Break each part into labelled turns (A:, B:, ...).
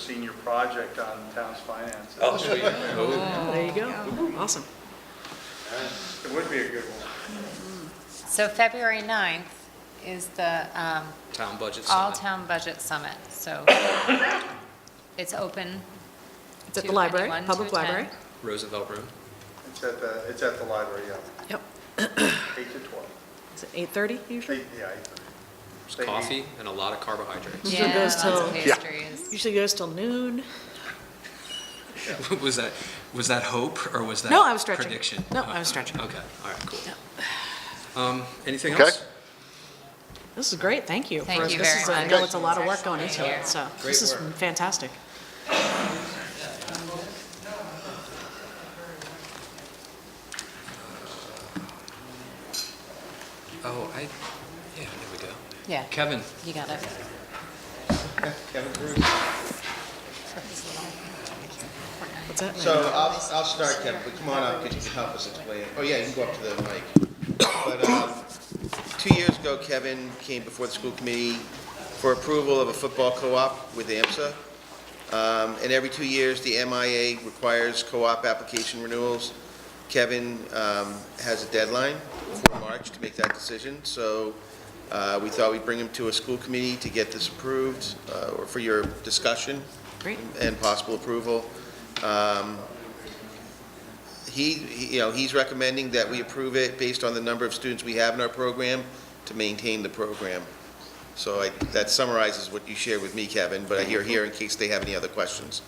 A: senior project on the town's finances.
B: Oh, sweet.
C: There you go. Awesome.
A: It would be a good one.
D: So February 9th is the um,
B: Town uh, budget summit.
D: all-town budget summit, so it's open
C: It's at
D: to
C: the library,
D: anyone to
C: public library.
D: attend.
B: Roosevelt Room.
A: It's at the, it's at the library, yeah,
C: Yep.
A: eight to twelve.
C: Is it 8:30 usually?
A: Eight, yeah, eight thirty. They
B: There's
A: eat-
B: coffee and a lot of carbohydrates.
C: Usually
D: Yeah,
C: goes
D: lots of
C: till-
E: Yeah.
D: pastries.
C: Usually goes till noon.
B: Was that, was that hope or was that?
C: No, I was stretching.
B: Prediction? Oh,
C: No, I was stretching.
B: Okay, all right, cool. Um, Anything
E: Okay.
B: else?
C: This is great, thank you.
D: Thank
C: for-
D: you
C: this
D: very
C: is a- I
D: much.
C: know it's a lot of work going into it, so this is
B: Great work.
C: fantastic.
B: Oh, I, yeah, there we go.
D: Yeah,
B: Kevin,
D: you got it.
F: Kevin Brew.
C: What's that?
F: So I'll, I'll start, Kevin, but come on up, because you can help us explain. Oh, yeah, you can go up to the mic. But, um, two years ago, Kevin came before the school committee for approval of a football co-op with AMSA. Um, and every two years, the MIA requires co-op application renewals. Kevin, um, has a deadline for March to make that decision, so, uh, we thought we'd bring him to a school committee to get this approved, uh, or for your discussion
C: Great.
F: and possible approval. Um, He, he- you know, he's recommending that we approve it based on the number of students we have in our program to maintain the program. So I, that summarizes what you shared with me, Kevin, but I hear here in case they have any other questions.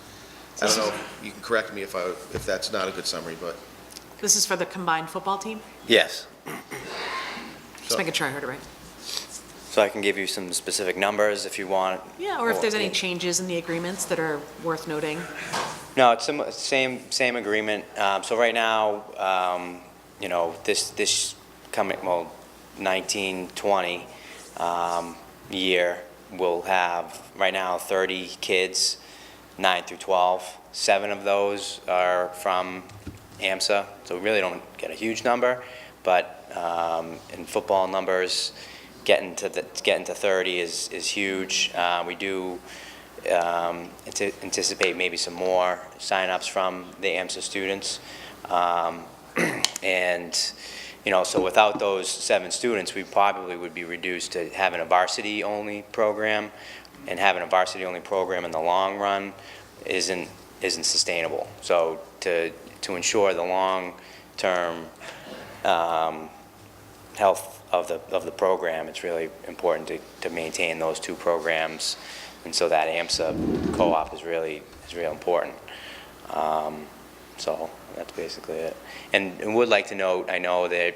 F: I don't know, if you can correct me if I, if that's not a good summary, but.
C: This is for the combined football team?
G: Yes.
C: Just making sure I heard it right.
G: So I can give you some specific numbers if you want.
C: Yeah, or if there's any changes in the agreements that are worth noting.
G: No, it's sim- same, same agreement. Um, So right now, um, you know, this, this coming, well, 19, 20 um, year, we'll have, right now, 30 kids, 9 through 12. Seven of those are from AMSA, so we really don't get a huge number, but um, in football numbers, getting to, the- getting to 30 is, is huge. Uh, We do um, ante- anticipate maybe some more signups from the AMSA students. Um, And, you know, so without those seven students, we probably would be reduced to having a varsity-only program, and having a varsity-only program in the long run isn't, isn't sustainable. So to, to ensure the long-term um, health of the, of the program, it's really important to, to maintain those two programs. And so that AMSA co-op is really, is real important. Um, So that's basically it. And and would like to note, I know that,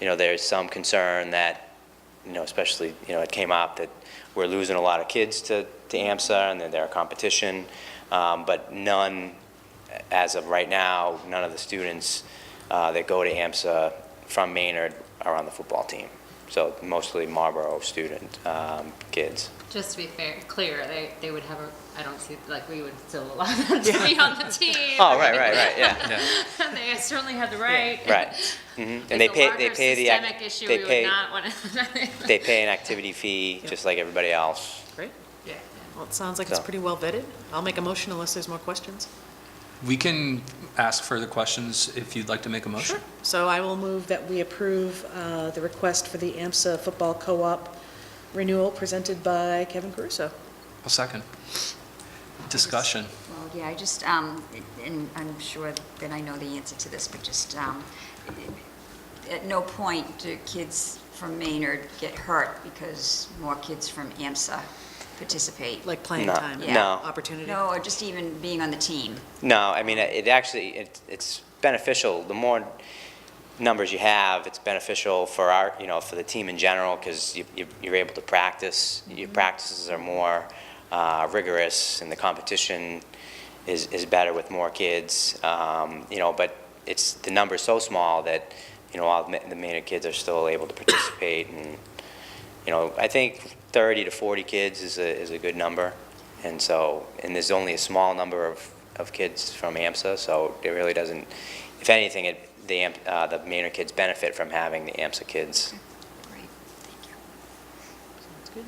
G: you know, there's some concern that, you know, especially, you know, it came up that we're losing a lot of kids to, to AMSA and that they're a competition, um, but none, as of right now, none of the students uh, that go to AMSA from Maynard are on the football team. So mostly Marlboro student, um, kids.
D: Just to be fair, clear, they, they would have a, I don't see, like, we would still allow them to be on the team.
G: Oh, right, right, right, yeah,
D: They certainly have the right.
G: right. Mhm. And they pay, they pay the. ac-
D: It's a larger systemic issue,
G: they
D: we would
G: pay-
D: not want to.
G: They pay an activity fee, just like everybody else.
C: Great.
D: Yeah.
C: Well, it sounds like it's
G: So.
C: pretty well vetted. I'll make a motion unless there's more questions.
B: we can ask further questions if you'd like to make a motion.
C: So I will move that we approve uh, the request for the AMSA Football Co-op renewal presented by Kevin Caruso.
B: A second. Discussion.
H: Well, yeah, I just, um, and I'm sure that I know the answer to this, but just, um, at no point do kids from Maynard get hurt because more kids from AMSA participate.
C: Like playing
G: No,
C: time,
H: Yeah.
G: no.
C: opportunity.
H: No, or just even being on the team.
G: No, I mean, it actually, it- it's beneficial, the more numbers you have, it's beneficial for our, you know, for the team in general, because you're able to practice, your
D: Mm-hmm.
G: practices are more uh, rigorous, and the competition is is better with more kids, um, you know, but it's, the number's so small that, you know, all the Ma- the Maynard kids are still able to participate, and, you know, I think 30 to 40 kids is a, is a good number. And so, and there's only a small number of, of kids from AMSA, so it really doesn't, if anything, it, the, Am- uh, the Maynard kids benefit from having the AMSA kids.
H: Great, thank you.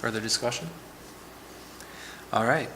B: Further discussion? All right,